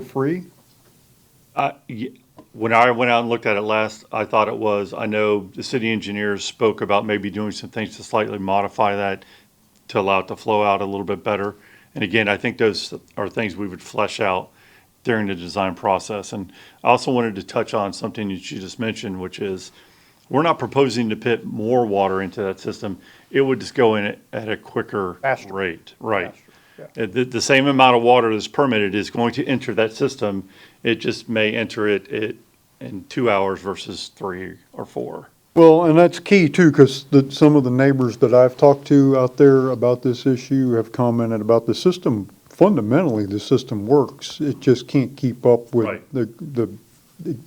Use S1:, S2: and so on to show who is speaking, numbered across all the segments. S1: flow-free?
S2: Uh, y- When I went out and looked at it last, I thought it was. I know the city engineers spoke about maybe doing some things to slightly modify that to allow it to flow out a little bit better. And again, I think those are things we would flesh out during the design process. And I also wanted to touch on something that you just mentioned, which is we're not proposing to put more water into that system. It would just go in at a quicker
S1: Faster.
S2: rate, right?
S1: Faster,
S2: Uh, The, the same amount of water that's permitted is going to enter that system. It just may enter it, it in two hours versus three or four.
S1: Well, and that's key too, because the, some of the neighbors that I've talked to out there about this issue have commented about the system. Fundamentally, the system works. It just can't keep up with
S2: Right.
S1: the, the,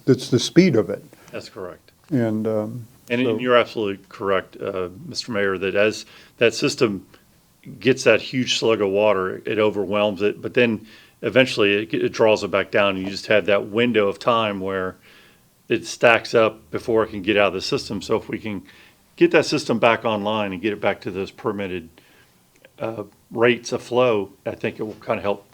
S1: it's the speed of it.
S2: That's correct.
S1: And, um,
S2: And and
S1: So-
S2: you're absolutely correct, uh, Mr. Mayor, that as that system gets that huge slug of water, it overwhelms it, but then eventually it, it draws it back down. And you just have that window of time where it stacks up before it can get out of the system. So if we can get that system back online and get it back to those permitted uh, rates of flow, I think it will kind of help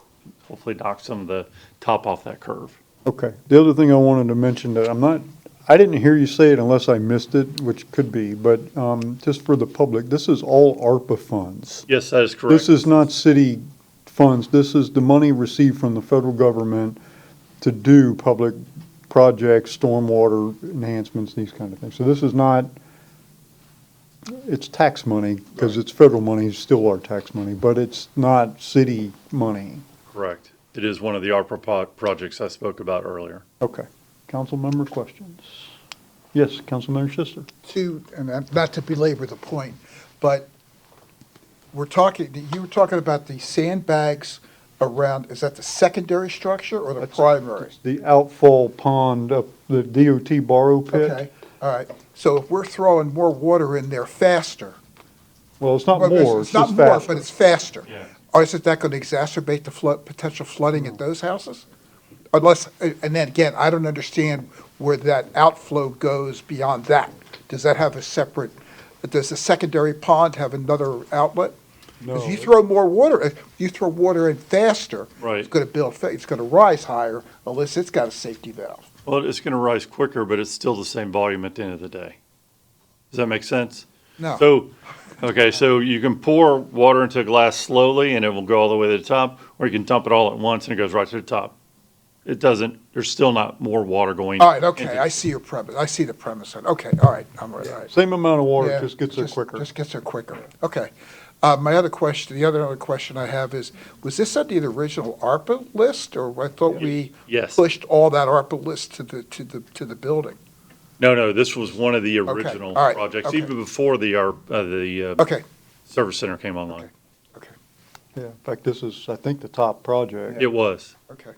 S2: hopefully knock some of the top off that curve.
S1: Okay. The other thing I wanted to mention that I'm not, I didn't hear you say it unless I missed it, which could be, but, um, just for the public, this is all ARPA funds.
S2: Yes, that is correct.
S1: This is not city funds. This is the money received from the federal government to do public projects, stormwater enhancements, these kind of things. So this is not, it's tax money, because it's federal money, it's still our tax money, but it's not city money.
S2: Correct. It is one of the ARPA po- projects I spoke about earlier.
S1: Okay. Council member questions? Yes, Councilmember Schuster?
S3: to, and I'm- not to belabor the point, but we're talking, you were talking about the sandbags around, is that the secondary structure or the primary?
S1: The outfall pond up the DOT borrow
S3: Okay,
S1: pit?
S3: all right. So if we're throwing more water in there faster.
S1: Well, it's not
S3: well,
S1: more, it's just
S3: Not more, but
S1: faster.
S3: it's faster.
S2: Yeah.
S3: Or isn't that going to exacerbate the flood, potential flooding at those houses? Unless, and then again, I don't understand where that outflow goes beyond that. Does that have a separate, does the secondary pond have another outlet? Because you
S1: No.
S3: throw more water, if you throw water in faster.
S2: Right.
S3: It's going to build, fa- it's going to rise higher unless it's got a safety valve.
S2: Well, it's going to rise quicker, but it's still the same volume at the end of the day. Does that make sense?
S3: No.
S2: So, okay, so you can pour water into a glass slowly and it will go all the way to the top, or you can dump it all at once and it goes right to the top. It doesn't, there's still not more water going.
S3: All right, okay,
S2: into-
S3: I see your premise, I see the premise. on- Okay, all right, I'm all right.
S1: Same amount of water,
S3: Yeah,
S1: it just gets there quicker.
S3: Just gets there quicker. Okay. Uh, my other question, the other other question I have is, was this on the original ARPA list, or I thought we
S2: Yes.
S3: pushed all that ARPA list to the to the to the building?
S2: No, no, this was one of the original
S3: all right,
S2: projects,
S3: okay.
S2: even before the, ARP uh, the, uh,
S3: Okay.
S2: service center came online.
S3: Okay.
S1: Yeah, in fact, this is, I think, the top project.
S2: It was.
S3: Okay.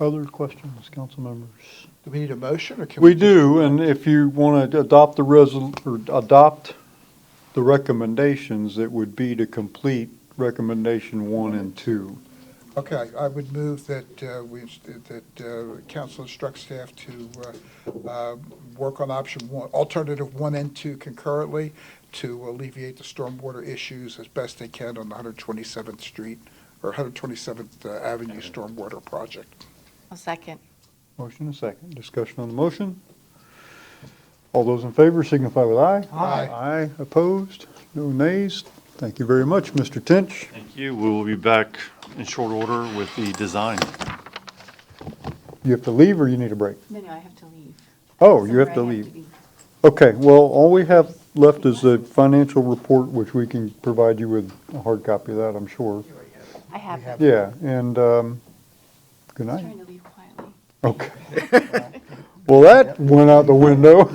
S1: Other questions, council members?
S3: Do we need a motion, or can we?
S1: We do, and if you want to adopt the resol, or adopt the recommendations, it would be to complete recommendation one and two.
S3: Okay, I would move that uh, we that uh, council instruct staff to uh, uh, work on option one, alternative one and two concurrently to alleviate the stormwater issues as best they can on the 127th Street or 127th Avenue Stormwater Project.
S4: A second.
S1: Motion and second. Discussion on the motion. All those in favor signify with aye.
S3: Aye.
S1: Aye, opposed, no nays. Thank you very much, Mr. Tinch.
S2: Thank you. We will be back in short order with the design.
S1: You have to leave or you need a break?
S4: No, no, I have to leave.
S1: Oh, you have to
S4: Somewhere I
S1: leave. Okay, well, all we have left is the financial report, which we can provide you with a hard copy of that, I'm sure.
S4: I have it.
S1: Yeah, and, um, good
S4: I was
S1: night.
S4: trying to leave quietly.
S1: Okay. Well, that went out the window.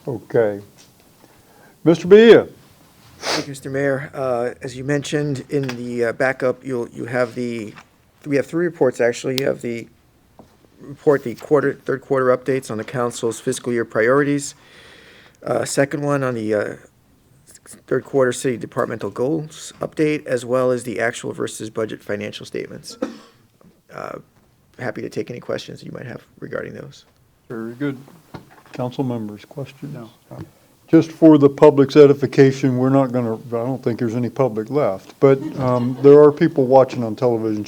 S1: Okay. Mr. Bia?
S5: Thank you, Mr. Mayor. Uh, As you mentioned in the uh, backup, you'll, you have the, we have three reports, actually. You have the report, the quarter, third quarter updates on the council's fiscal year priorities. Uh, Second one on the uh, third quarter city departmental goals update, as well as the actual versus budget financial statements. Uh, Happy to take any questions you might have regarding those.
S1: Very good. Council members, questions? No. just for the public's edification, we're not going to, I don't think there's any public left, but um, there are people watching on television,